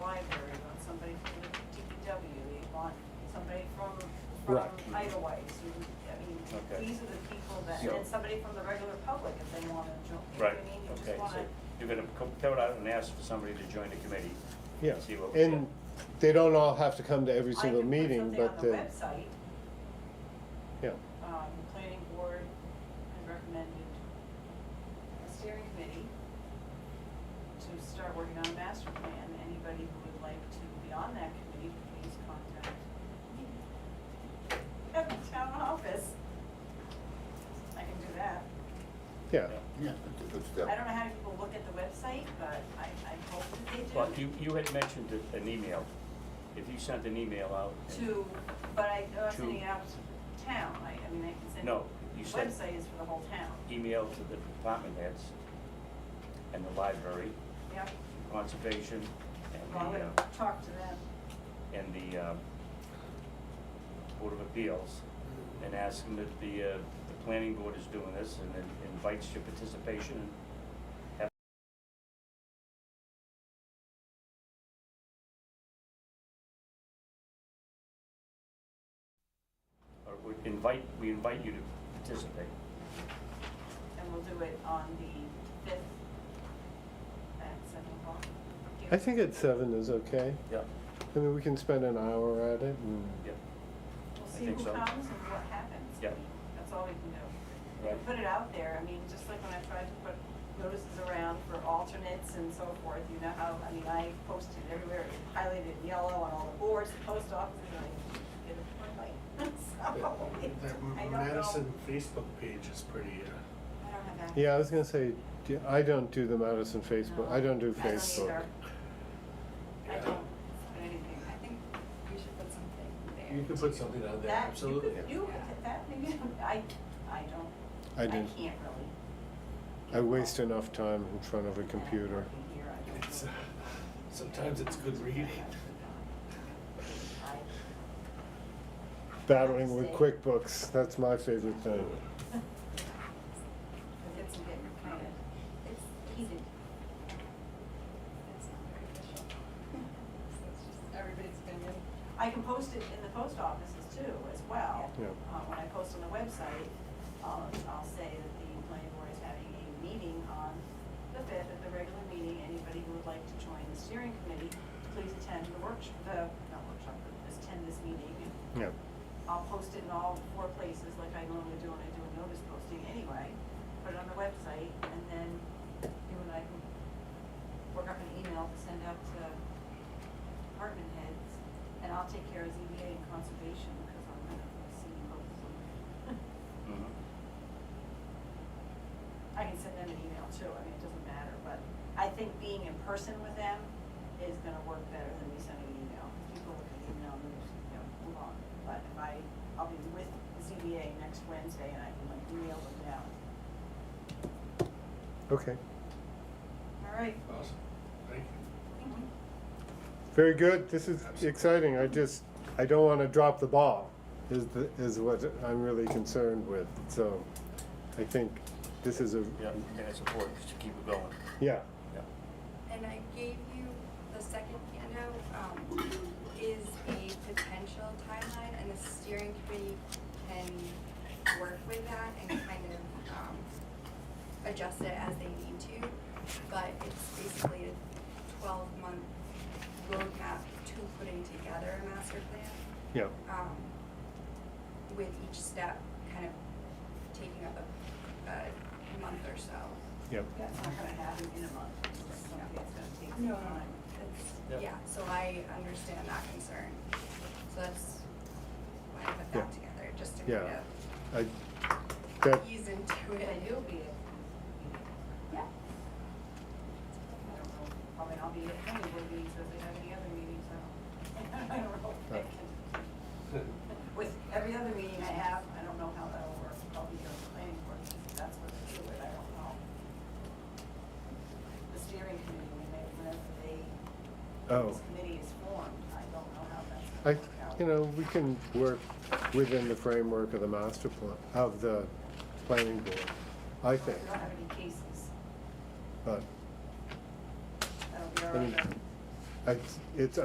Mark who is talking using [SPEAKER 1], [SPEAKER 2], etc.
[SPEAKER 1] from
[SPEAKER 2] Right.
[SPEAKER 1] Idlewise, you, I mean,
[SPEAKER 3] Okay.
[SPEAKER 1] these are the people that,
[SPEAKER 3] So-
[SPEAKER 1] and somebody from the regular public if they wanna join, you know what
[SPEAKER 3] Right,
[SPEAKER 1] I mean? You
[SPEAKER 3] okay,
[SPEAKER 1] just
[SPEAKER 3] so
[SPEAKER 1] wanna,
[SPEAKER 3] you're gonna co- go out and ask for somebody to join the committee?
[SPEAKER 2] Yeah,
[SPEAKER 3] See what we
[SPEAKER 2] and they don't all have to come to every
[SPEAKER 1] I
[SPEAKER 2] single
[SPEAKER 1] can put
[SPEAKER 2] meeting,
[SPEAKER 1] something on
[SPEAKER 2] but,
[SPEAKER 1] the
[SPEAKER 2] uh,
[SPEAKER 1] website,
[SPEAKER 2] yeah,
[SPEAKER 1] um, the planning board has recommended a steering committee to start working on a master plan, anybody who would like to be on that committee, please contact me. At the town office. I can do that.
[SPEAKER 2] yeah.
[SPEAKER 4] Yeah, that's a good
[SPEAKER 1] I
[SPEAKER 4] step.
[SPEAKER 1] don't know how many people look at the website, but I, I hope that they do.
[SPEAKER 3] Well, you, you had mentioned a- an email, if you sent an email out. and-
[SPEAKER 1] To, but I, I'm not
[SPEAKER 3] To-
[SPEAKER 1] sending it out to town, I, I mean, I can send.
[SPEAKER 3] No, you said-
[SPEAKER 1] Website is for the whole town,
[SPEAKER 3] Email to the department heads and the library,
[SPEAKER 1] yeah,
[SPEAKER 3] conservation, and
[SPEAKER 1] well, I
[SPEAKER 3] the,
[SPEAKER 1] would
[SPEAKER 3] uh,
[SPEAKER 1] talk to them,
[SPEAKER 3] and the, um, Board of Appeals, and ask them that the, uh, the planning board is doing this, and then invites your participation, and have or we invite, we invite you to participate.
[SPEAKER 1] and we'll do it on the fifth at seven o'clock.
[SPEAKER 2] I think at seven is okay.
[SPEAKER 3] Yeah.
[SPEAKER 2] I mean, we can spend an hour at it and,
[SPEAKER 3] Yeah.
[SPEAKER 1] We'll
[SPEAKER 3] I
[SPEAKER 1] see who
[SPEAKER 3] think
[SPEAKER 1] comes
[SPEAKER 3] so.
[SPEAKER 1] and what happens. I
[SPEAKER 3] Yeah.
[SPEAKER 1] mean, That's all we can do. We can
[SPEAKER 3] Right.
[SPEAKER 1] Put it out there, I mean, just like when I tried to put notices around for alternates and so forth, you know how, I mean, I posted everywhere, highlighted in yellow on all the boards, the post office, and I did a point
[SPEAKER 5] That
[SPEAKER 1] I don't know.
[SPEAKER 5] Madison Facebook page is pretty, uh,
[SPEAKER 1] I don't have access.
[SPEAKER 2] yeah, I was gonna say, do- I don't do the Madison Facebook, I don't do
[SPEAKER 1] No, I don't
[SPEAKER 2] Facebook.
[SPEAKER 1] either. I
[SPEAKER 5] Yeah.
[SPEAKER 1] don't put anything, I think
[SPEAKER 6] We should put something there.
[SPEAKER 5] you can put something on there,
[SPEAKER 1] that, you
[SPEAKER 5] absolutely.
[SPEAKER 1] could, you, could- that, maybe, I, I don't,
[SPEAKER 2] I
[SPEAKER 1] I
[SPEAKER 2] do.
[SPEAKER 1] can't really.
[SPEAKER 2] I waste enough time in front of a computer.
[SPEAKER 5] It's, uh, Sometimes it's good reading.
[SPEAKER 2] Battling with QuickBooks, that's my favorite thing.
[SPEAKER 6] It's getting kind of, it's heated. It's not very official. So it's just everybody's opinion.
[SPEAKER 1] I can post it in the post offices too, as well.
[SPEAKER 2] Yeah.
[SPEAKER 1] Uh, when I post on the website, I'll, I'll say that the planning board is having a meeting on the fifth at the regular meeting. Anybody who would like to join the steering committee, please attend the workshop, the, not workshop, but just attend this meeting. And
[SPEAKER 2] Yeah,
[SPEAKER 1] I'll post it in all four places like I normally do when I do a notice posting anyway. Put it on the website and then you and I can work up an email to send out to department heads. And I'll take care of ZBA and conservation because I'm gonna see both of them.
[SPEAKER 3] Mhm.
[SPEAKER 1] I can send them an email too, I mean, it doesn't matter, but I think being in person with them is gonna work better than me sending an email. People look at the email and just, you know, move on. But if I, I'll be with the ZBA next Wednesday and I can like email them now.
[SPEAKER 2] okay.
[SPEAKER 1] All right.
[SPEAKER 5] Awesome, thank you.
[SPEAKER 2] Very good, this is exciting, I just, I don't wanna drop the ball, is, the- is what I'm really concerned with, so I think this is a,
[SPEAKER 3] Yeah, and it's important to keep it going,
[SPEAKER 2] yeah,
[SPEAKER 3] yeah.
[SPEAKER 6] And I gave you the second handout, um, is a potential timeline and the steering committee can work with that and kind of, um, adjust it as they need to. But it's basically a twelve month roadmap to putting together a master plan
[SPEAKER 2] yeah,
[SPEAKER 6] um, with each step kind of taking up a, a month or so.
[SPEAKER 2] yeah.
[SPEAKER 1] That's not gonna happen in a month, it's just something that's gonna take some time.
[SPEAKER 3] Yeah.
[SPEAKER 6] It's, yeah, so I understand that concern. So that's why I put
[SPEAKER 2] Yeah.
[SPEAKER 6] that together, just to
[SPEAKER 2] Yeah.
[SPEAKER 6] kind
[SPEAKER 2] I,
[SPEAKER 6] of
[SPEAKER 2] that,
[SPEAKER 6] ease into
[SPEAKER 1] But
[SPEAKER 6] it.
[SPEAKER 1] you'll be, I
[SPEAKER 6] Yeah.
[SPEAKER 1] don't know, probably I'll be at any of the meetings, if they have any other meetings, I don't, I don't know if I can. With every other meeting I have, I don't know how that'll work, I'll be here planning board, if that's what they do, but I don't know. The steering committee, when they, whenever they,
[SPEAKER 2] oh,
[SPEAKER 1] this committee is formed, I don't know how that's
[SPEAKER 2] I,
[SPEAKER 1] gonna work out.
[SPEAKER 2] you know, we can work within the framework of the master plan, of the planning board, I
[SPEAKER 1] We
[SPEAKER 2] think,
[SPEAKER 1] don't have any cases,
[SPEAKER 2] but,
[SPEAKER 1] that'll be
[SPEAKER 2] I
[SPEAKER 1] our
[SPEAKER 2] mean,
[SPEAKER 1] other.
[SPEAKER 2] I, it's